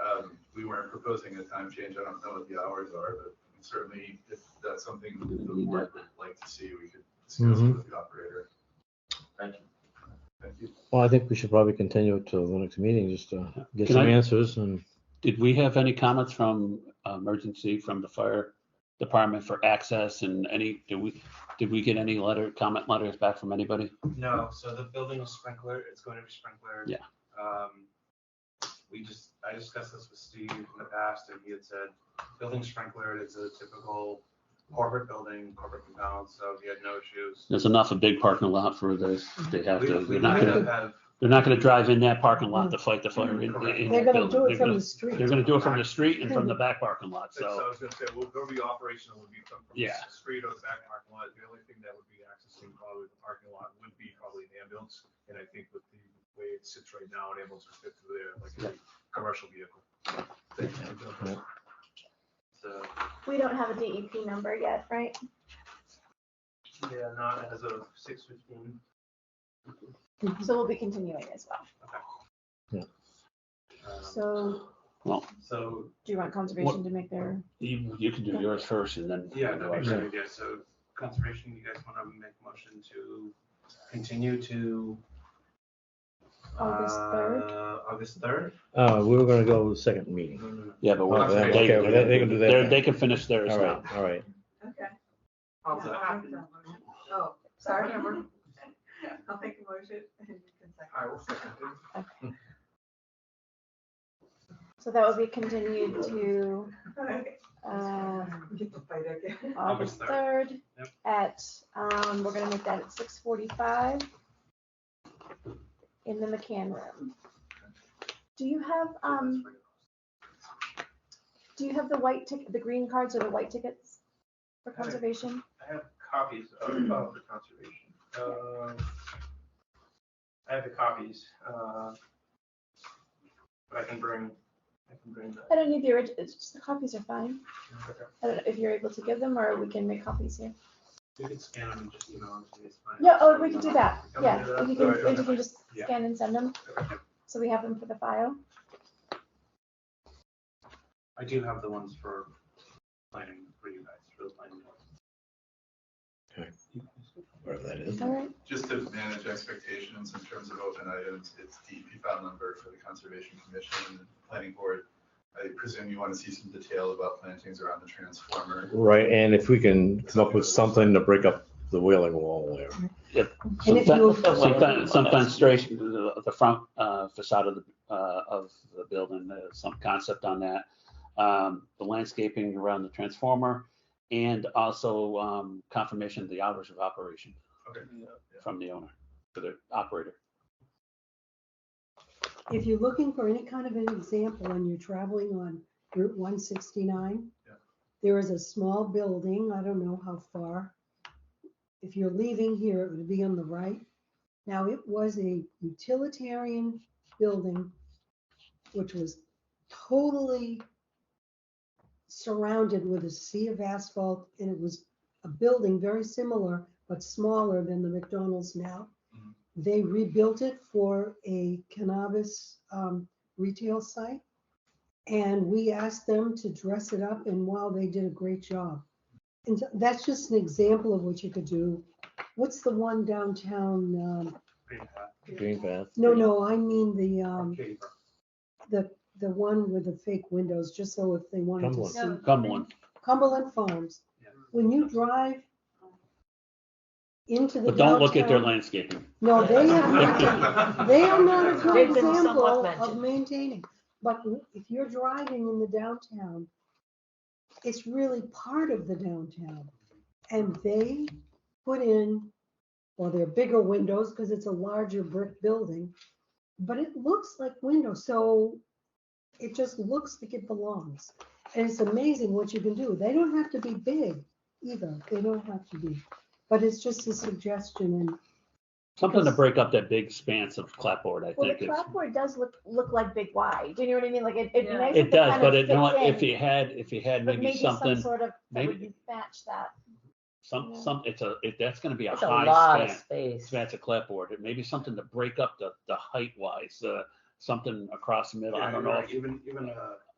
Um, we weren't proposing a time change. I don't know what the hours are, but certainly if that's something that the board would like to see, we could discuss Mhm. with the operator. Thank you. Thank you. Well, I think we should probably continue it till the next meeting, just to get Can some I- answers and. Did we have any comments from uh, emergency, from the fire department for access and any, did we, did we get any letter, comment letters back from anybody? No, so the building is sprinkler, it's going to be sprinkler. Yeah. Um, we just, I discussed this with Steve in the past, and he had said, building sprinkler is a typical corporate building, corporate compound, so he had no issues. There's enough a big parking lot for this. They have We- to, we they're not might gonna, have- they're not gonna drive in that parking lot to fight the fire in, in They're that gonna building. do it They're from gonna, the street. they're gonna do it from the street and from the back parking lot, So so. I was gonna say, we'll go be operational, would be from from the Yeah. street or the back parking lot. The only thing that would be accessing probably the parking lot would be probably an ambulance. And I think with the way it sits right now, an ambulance would fit through there like a commercial vehicle. So, We don't have a DEP number yet, right? yeah, not as of six fifteen. Um, So we'll be continuing as well. So So, do you want conservation to make their? You, you can do yours first and then. yeah, that makes Yeah. sense, yeah, so conservation, you guys wanna make a motion to continue to. August third? uh, August third? Uh, we were gonna go to the second meeting. No, no, no. Yeah, but. Oh, we're- okay, well, they- they can do that they're- then. They can finish theirs All right, now. all right. Okay. I'll Yeah, I'll make that motion. Oh, sorry. I'll make a motion and you can second. I will second it. So that will be continued to Okay. uh, Get to fight again. August August third Yep. at, um, we're gonna make that at six forty-five in the McCann room. Do you have, um, do you have the white ticket, the green cards or the white tickets for Okay. conservation? I have copies of, of the conservation. Um, I have the copies, uh, but I can bring, I can bring I that. don't need the orig, it's just the copies are fine. I don't know if you're able to give them or we can make copies here. You can scan them and just email them to me, it's fine. Yeah, oh, we can do that. Okay, Yeah, we'll if do you that. can, if you can just Yeah. scan and send them, Okay. so we have them for the file. I do have the ones for planning for you guys, for the planning. Wherever that is. All right. Just to manage expectations in terms of open items, it's DEP file number for the Conservation Commission and the Planning Board. I presume you want to see some detail about plantings around the transformer. Right, and if we can come up with something to break up the wailing wall there. And if you- Sometimes, sometimes- sometimes straight to the, the front uh, facade of the, uh, of the building, uh, some concept on that. Um, The landscaping around the transformer and also um, confirmation of the hours of operation Okay. from the owner, to the operator. If you're looking for any kind of an example and you're traveling on Route one sixty-nine, Yeah. there is a small building, I don't know how far. If you're leaving here, it would be on the right. Now, it was a utilitarian building, which was totally surrounded with a sea of asphalt, and it was a building very similar, but smaller than the McDonald's now. Mhm. They rebuilt it for a cannabis um, retail site. And we asked them to dress it up, and wow, they did a great job. And so that's just an example of what you could do. What's the one downtown? Um, Green hat, Green path. no, no, I mean the um, Katie, the the one with the fake windows, just so if they wanted to Cumberland. see Come on. Cumberland Farms. yeah. When you drive into the But don't look at their downtown- landscaping. No, they have not. They are not a They've good been somewhat example of mentioned. maintaining, but if you're driving in the downtown, it's really part of the downtown. And they put in, well, they're bigger windows because it's a larger brick building, but it looks like windows, so it just looks like it belongs. And it's amazing what you can do. They don't have to be big either. They don't have to be. But it's just a suggestion and Something to break up that big expanse of clapboard, I Well, the think. is- clapboard does look, look like big Y. Do you know what I mean? Like it, it Yeah. nice. It does, but it, you know what, if if you had, if you had maybe something, Sort of, that would maybe- match that. some, some, it's a, it- that's going to be a It's a lot high of span. space. That's a clapboard. It may be something to break up the, the height wise, uh, something across the middle. Yeah, I don't you're know. right, Even, uh, even a